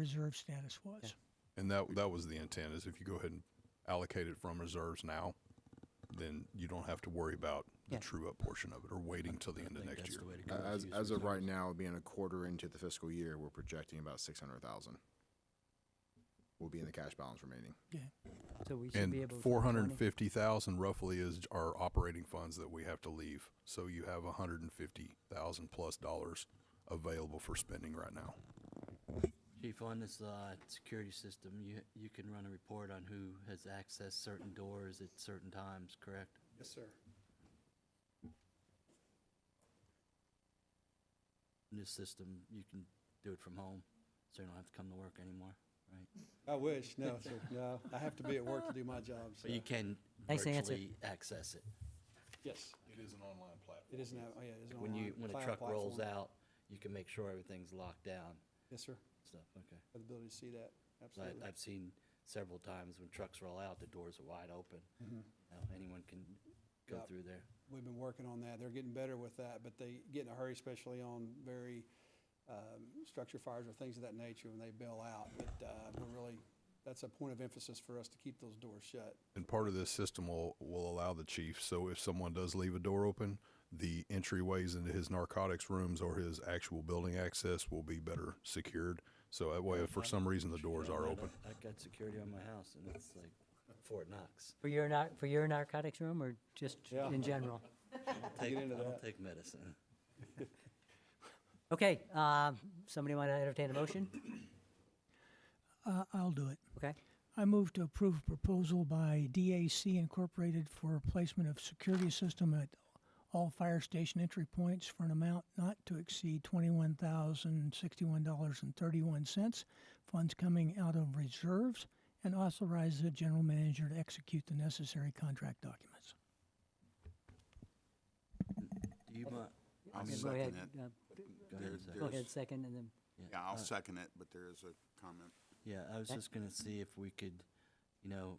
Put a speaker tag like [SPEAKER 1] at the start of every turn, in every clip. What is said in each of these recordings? [SPEAKER 1] reserve status was.
[SPEAKER 2] And that that was the intent is if you go ahead and allocate it from reserves now, then you don't have to worry about the
[SPEAKER 3] Yeah.
[SPEAKER 2] true up portion of it or waiting till the end of
[SPEAKER 4] think
[SPEAKER 2] next
[SPEAKER 4] that's
[SPEAKER 2] year.
[SPEAKER 4] the way to go.
[SPEAKER 5] As,
[SPEAKER 4] Use
[SPEAKER 5] as of
[SPEAKER 4] reserves.
[SPEAKER 5] right now, being a quarter into the fiscal year, we're projecting about six hundred thousand. Will be in the cash balance remaining.
[SPEAKER 3] So we should be
[SPEAKER 2] And
[SPEAKER 3] able. to-
[SPEAKER 2] four hundred and fifty thousand roughly is our operating funds that we have to leave. So you have hundred and fifty thousand plus dollars available for spending right now.
[SPEAKER 4] Chief, on this uh, security system, you, you can run a report on who has accessed certain doors at certain times, correct?
[SPEAKER 6] Yes, sir.
[SPEAKER 4] In this system, you can do it from home, so you don't have to come to work anymore, right?
[SPEAKER 6] I wish, no, sir, no. I have to be at work to do my job, so.
[SPEAKER 4] But you can
[SPEAKER 3] Thanks, Nancy.
[SPEAKER 4] virtually access it.
[SPEAKER 6] Yes,
[SPEAKER 2] It is an online platform.
[SPEAKER 6] it is now, oh, yeah, it is an
[SPEAKER 4] When you,
[SPEAKER 6] online
[SPEAKER 4] when a
[SPEAKER 6] cloud
[SPEAKER 4] truck rolls
[SPEAKER 6] platform.
[SPEAKER 4] out, you can make sure everything's locked down,
[SPEAKER 6] Yes, sir.
[SPEAKER 4] stuff, okay.
[SPEAKER 6] Have the ability to see that, absolutely.
[SPEAKER 4] I, I've seen several times when trucks roll out, the doors are wide open. Now, anyone can go
[SPEAKER 6] Yep.
[SPEAKER 4] through there.
[SPEAKER 6] We've been working on that. They're getting better with that, but they get in a hurry, especially on very um, structure fires or things of that nature when they bail out. But uh, we're really, that's a point of emphasis for us to keep those doors shut.
[SPEAKER 2] And part of this system will, will allow the chief, so if someone does leave a door open, the entryways into his narcotics rooms or his actual building access will be better secured. So that way, if for some reason the doors are open,
[SPEAKER 4] I've got security on my house, and it's like Fort Knox.
[SPEAKER 3] For your nar, for your narcotics room or just
[SPEAKER 6] Yeah.
[SPEAKER 3] in general?
[SPEAKER 4] Take,
[SPEAKER 6] into
[SPEAKER 4] I don't
[SPEAKER 6] that.
[SPEAKER 4] take medicine.
[SPEAKER 3] Okay, um, somebody want to entertain a motion?
[SPEAKER 1] Uh, I'll do it.
[SPEAKER 3] Okay,
[SPEAKER 1] I move to approve a proposal by DAC Incorporated for replacement of security system at all fire station entry points for an amount not to exceed twenty-one thousand sixty-one dollars and thirty-one cents. Funds coming out of reserves and authorize the general manager to execute the necessary contract documents.
[SPEAKER 4] Do you mind?
[SPEAKER 7] I'll
[SPEAKER 3] Okay, go
[SPEAKER 7] second
[SPEAKER 3] ahead,
[SPEAKER 7] it.
[SPEAKER 3] uh,
[SPEAKER 4] Go ahead.
[SPEAKER 7] There-
[SPEAKER 4] and say.
[SPEAKER 3] go ahead, second, and then,
[SPEAKER 7] Yeah, I'll second it, but there is a comment.
[SPEAKER 4] uh, Yeah, I was just gonna see if we could, you know,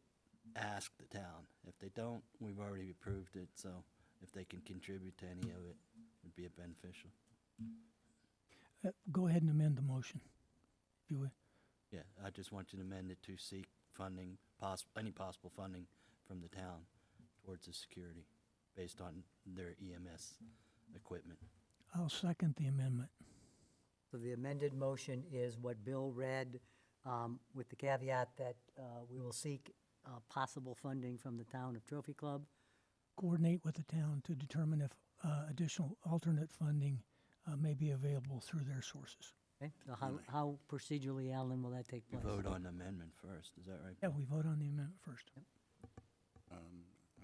[SPEAKER 4] ask the town. If they don't, we've already approved it, so if they can contribute to any of it, it'd be beneficial.
[SPEAKER 1] Uh, Go ahead and amend the motion. if you would.
[SPEAKER 4] Yeah, I just want you to amend it to seek funding, poss, any possible funding from the town towards the security based on their EMS equipment.
[SPEAKER 1] I'll second the amendment.
[SPEAKER 3] so the amended motion is what Bill read, um, with the caveat that, uh, we will seek, uh, possible funding from the town of Trophy Club.
[SPEAKER 1] Coordinate with the town to determine if uh, additional alternate funding uh, may be available through their sources.
[SPEAKER 3] Okay, so how, how procedurally, Alan, will that take
[SPEAKER 4] We
[SPEAKER 3] place?
[SPEAKER 4] vote on the amendment first, is that right?
[SPEAKER 1] Yeah, we vote on the amendment first.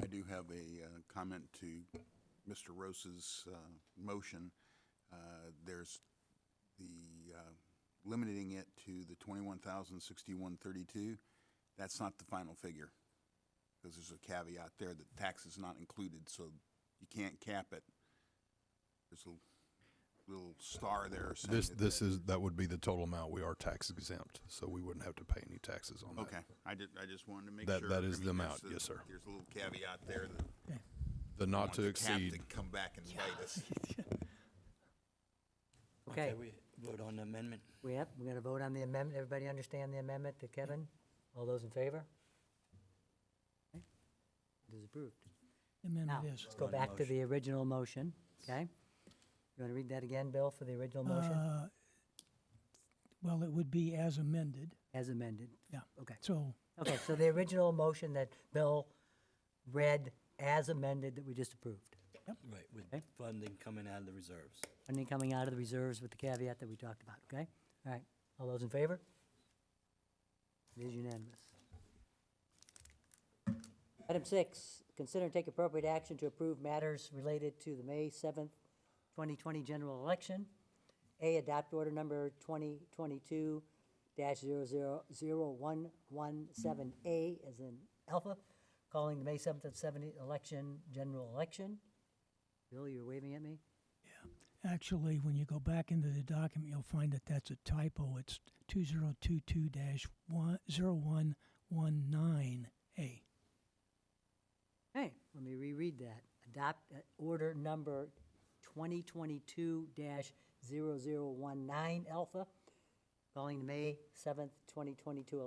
[SPEAKER 7] I do have a uh, comment to Mr. Rose's uh, motion. Uh, There's the, uh, limiting it to the 21,061.32. That's not the final figure, because there's a caveat there that tax is not included, so you can't cap it. There's a little star there. saying
[SPEAKER 2] this,
[SPEAKER 7] that-
[SPEAKER 2] this is, that would be the total amount. We are tax exempt, so we wouldn't have to pay any taxes on that.
[SPEAKER 7] Okay, I did, I just wanted to make
[SPEAKER 2] That-
[SPEAKER 7] sure.
[SPEAKER 2] that is
[SPEAKER 7] I mean,
[SPEAKER 2] the
[SPEAKER 7] there's
[SPEAKER 2] amount,
[SPEAKER 7] a-
[SPEAKER 2] yes, sir.
[SPEAKER 7] There's a little caveat there that.
[SPEAKER 2] The not
[SPEAKER 7] want
[SPEAKER 2] to
[SPEAKER 7] the cap to
[SPEAKER 2] exceed,
[SPEAKER 7] Come back and bite us.
[SPEAKER 3] Okay,
[SPEAKER 4] We vote on the amendment?
[SPEAKER 3] we have, we're gonna vote on the amendment, everybody understand the amendment to Kevin? All those in favor? Okay. It is approved. Now,
[SPEAKER 1] Amendment is.
[SPEAKER 3] let's go back to the original motion, okay? You want to read that again, Bill, for the original motion
[SPEAKER 1] Uh, Well, it would be as amended,
[SPEAKER 3] as amended?
[SPEAKER 1] yeah.
[SPEAKER 3] Okay.
[SPEAKER 1] So,
[SPEAKER 3] Okay, so the original motion that Bill read as amended that we just approved.
[SPEAKER 4] Right, with
[SPEAKER 3] Okay.
[SPEAKER 4] funding coming out of the reserves.
[SPEAKER 3] Funding coming out of the reserves with the caveat that we talked about, okay? All right, all those in favor? It is unanimous. Item six, consider and take appropriate action to approve matters related to the May seventh, twenty twenty general election. A, adopt order number twenty twenty-two dash zero zero zero one one seven A as in alpha, calling the May seventh and seventy election, general election. Bill, you're waving at me?
[SPEAKER 1] actually, when you go back into the document, you'll find that that's a typo. It's 2022-0119A.
[SPEAKER 3] Hey, let me reread that. Adopt uh, order number 2022-0019 alpha, calling the May seventh, twenty twenty-two